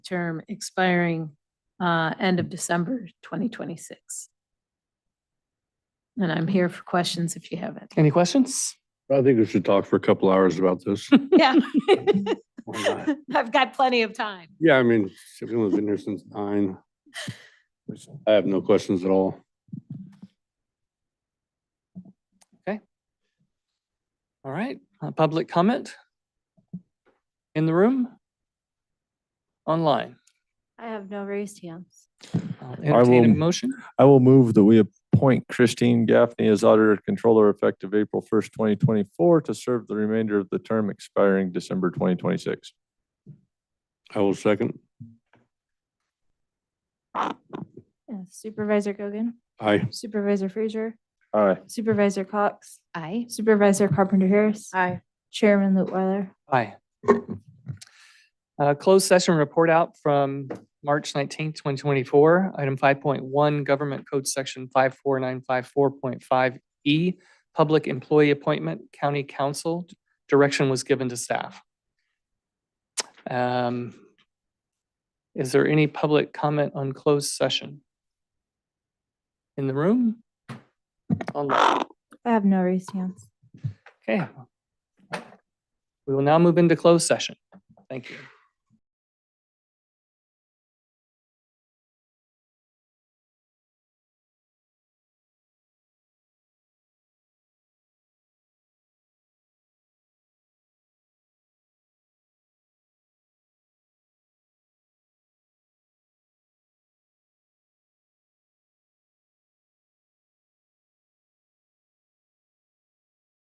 term expiring uh, end of December 2026. And I'm here for questions if you have it. Any questions? I think we should talk for a couple hours about this. Yeah. Why not? I've got plenty of time. Yeah, I mean, everyone's been here since nine. I have no questions at all. All right, uh, public comment? In the room? Online? I have no raised hands. I'll entertain a will- motion. I will move that we appoint Christine Gaffney as auditor controller effective April first, twenty twenty-four to serve the remainder of the term expiring December twenty twenty-six. I will second. Uh, Supervisor Gogan, Aye. Supervisor Frazier, Aye. Supervisor Cox, Aye. Supervisor Carpenter Harris. Aye. Chairman Lutwiler. Aye. Uh, closed session report out from March nineteenth, twenty twenty-four. Item five point one, Government Code Section five four nine five four point five E, Public Employee Appointment, County Council. Direction was given to staff. Um, Is there any public comment on closed session? In the room? Online? I have no raised hands. Okay. We will now move into closed session. Thank you.